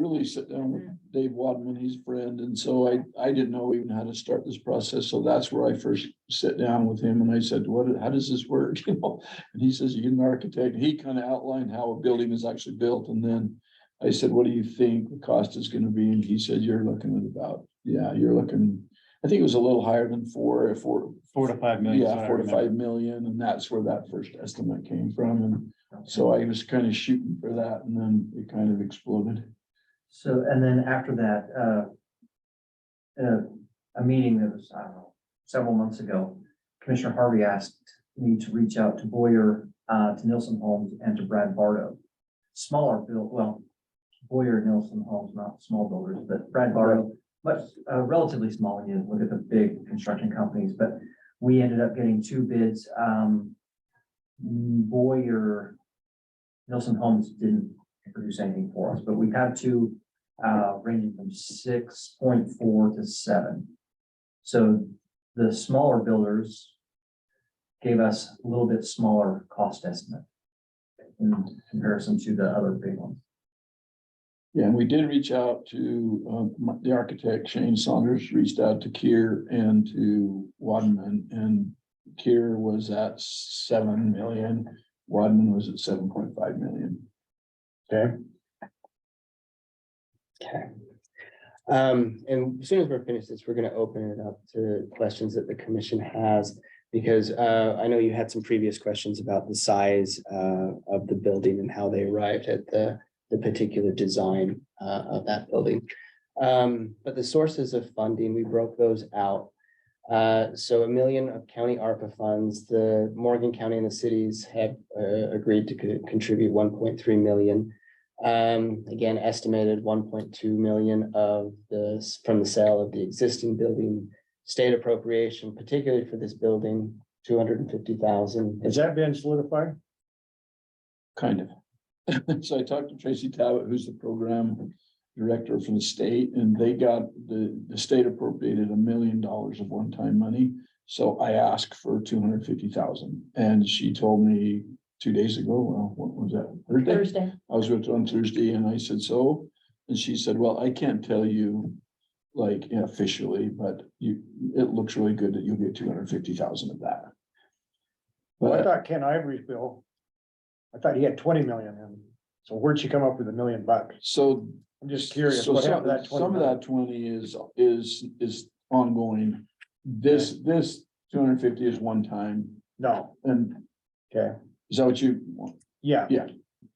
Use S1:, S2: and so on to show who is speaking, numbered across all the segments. S1: really sit down with Dave Wadman, he's a friend, and so I, I didn't know even how to start this process, so that's where I first sit down with him, and I said, what, how does this work, you know? And he says, you get an architect, he kind of outlined how a building is actually built, and then I said, what do you think the cost is gonna be, and he said, you're looking at about, yeah, you're looking, I think it was a little higher than four, four,
S2: Four to five million. is what
S1: yeah,
S2: I
S1: four to
S2: remember.
S1: five million, and that's where that first estimate came from, and so I was kind of shooting for that, and then it kind of exploded.
S3: So, and then after that, uh, uh, a meeting that was, I don't know, several months ago, Commissioner Harvey asked me to reach out to Boyer, uh, to Nielsen Homes and to Brad Bardo. Smaller build, well, Boyer, Nielsen Homes, not small builders, but Brad Bardo, much, uh, relatively small, when you look at the big construction companies, but we ended up getting two bids, um, Boyer, Nielsen Homes didn't produce anything for us, but we have two, uh, ranging from six point four to seven. So the smaller builders gave us a little bit smaller cost estimate in comparison to the other big ones.
S1: Yeah, and we did reach out to, um, my- the architect Shane Saunders, reached out to Kier and to Wadman, and Kier was at seven million, Wadman was at seven point five million.
S4: Okay. Um, and as soon as we're finished this, we're gonna open it up to questions that the commission has. Because uh, I know you had some previous questions about the size uh of the building and how they arrived at the the particular design uh of that building. Um, but the sources of funding, we broke those out. Uh, so a million of county ARPA funds, the Morgan County and the cities have uh agreed to co- contribute one point three million. Um, again, estimated one point two million of this from the sale of the existing building. State appropriation, particularly for this building, two hundred and fifty thousand.
S2: Has that been solidified?
S1: Kind of. So I talked to Tracy Talbot, who's the program director for the state, and they got, the, the state appropriated a million dollars of one-time money. So I asked for two hundred fifty thousand, and she told me two days ago, well, what was that, Thursday?
S5: Thursday.
S1: I was with her on Thursday and I said, so, and she said, well, I can't tell you. Like officially, but you, it looks really good that you'll get two hundred fifty thousand of that.
S2: Well, I
S1: But
S2: thought Ken Ivory's bill. I thought he had twenty million in. So where'd she come up with a million bucks?
S1: so
S2: I'm just curious.
S1: So
S2: what
S1: some,
S2: happened to that 20
S1: some of
S2: million?
S1: that twenty is, is, is ongoing. This, this two hundred and fifty is one time
S2: No,
S1: and
S2: okay,
S1: is that what you want?
S2: yeah.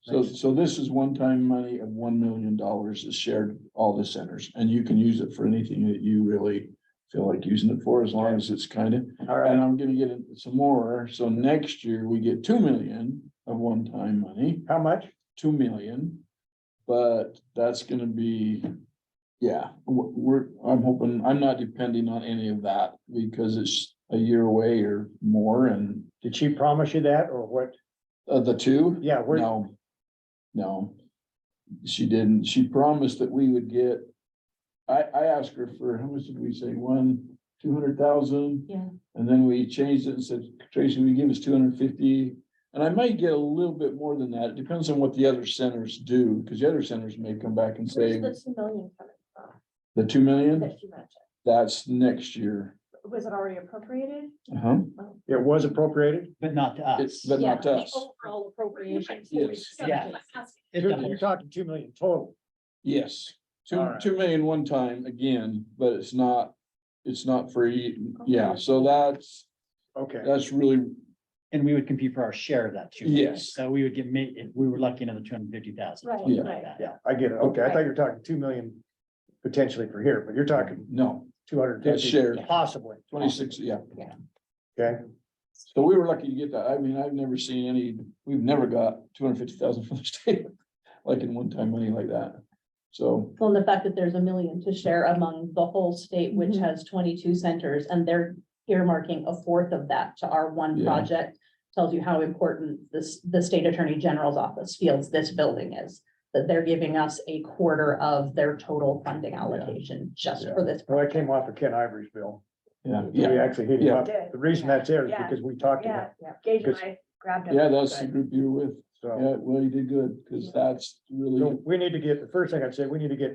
S1: So, so this is one-time money of one million dollars is shared to all the centers and you can use it for anything that you really feel like using it for as long as it's kind of,
S3: All right,
S1: and I'm gonna get it some more. So next year we get two million of one-time money.
S2: How much?
S1: two million. But that's gonna be, yeah, w- we're, I'm hoping, I'm not depending on any of that because it's a year away or more and
S2: Did she promise you that or what?
S1: uh, the two,
S2: Yeah, where,
S1: no. No. She didn't. She promised that we would get. I, I asked her for, how much did we say? One, two hundred thousand?
S5: Yeah.
S1: And then we changed it and said, Tracy, we give us two hundred fifty? And I might get a little bit more than that. It depends on what the other centers do, because the other centers may come back and
S5: Where's
S1: say,
S5: the two million coming from
S1: the two million,
S5: that you mentioned?
S1: that's next year.
S5: Was it already appropriated?
S1: Uh-huh.
S2: it was appropriated?
S6: But not to
S1: It's,
S6: us.
S1: but
S5: Yeah,
S1: not
S5: the
S1: us.
S5: Overall appropriations.
S1: Yes.
S6: Yeah.
S2: You're you're talking two million total.
S1: Yes, two,
S2: All right.
S1: two million one time again, but it's not, it's not free. Yeah,
S5: Okay.
S1: so that's,
S2: Okay,
S1: that's really,
S6: And we would compete for our share of that two. million.
S1: Yes.
S6: So we would get, ma- if we were lucky another two hundred and fifty thousand.
S5: Right, right.
S2: yeah, I get it. Okay, I thought you were talking two million potentially for here, but you're talking
S1: no,
S2: two hundred
S1: That's shared.
S2: fifty possibly.
S1: twenty-six, yeah.
S2: Okay,
S1: So we were lucky to get that. I mean, I've never seen any, we've never got two hundred fifty thousand from the state, like in one-time money like that. So,
S7: Well, and the fact that there's a million to share among the whole state, which
S5: Mhm.
S7: has twenty-two centers, and they're earmarking a fourth of that to our one
S1: Yeah.
S7: project. Tells you how important this, the state attorney general's office feels this building is, that they're giving us a quarter of their total funding allocation just
S1: Yeah.
S7: for this.
S2: well, that came off of Ken Ivory's bill.
S1: yeah,
S2: We
S1: yeah,
S2: actually hit him
S1: Yeah.
S2: up. The reason that's there is
S5: Yeah.
S2: because we talked about
S5: Yeah, Gage and I grabbed it.
S1: yeah, that's the group you were with.
S2: So,
S1: Yeah, well, you did good, because that's really.
S2: so we need to get, the first thing I'd say, we need to get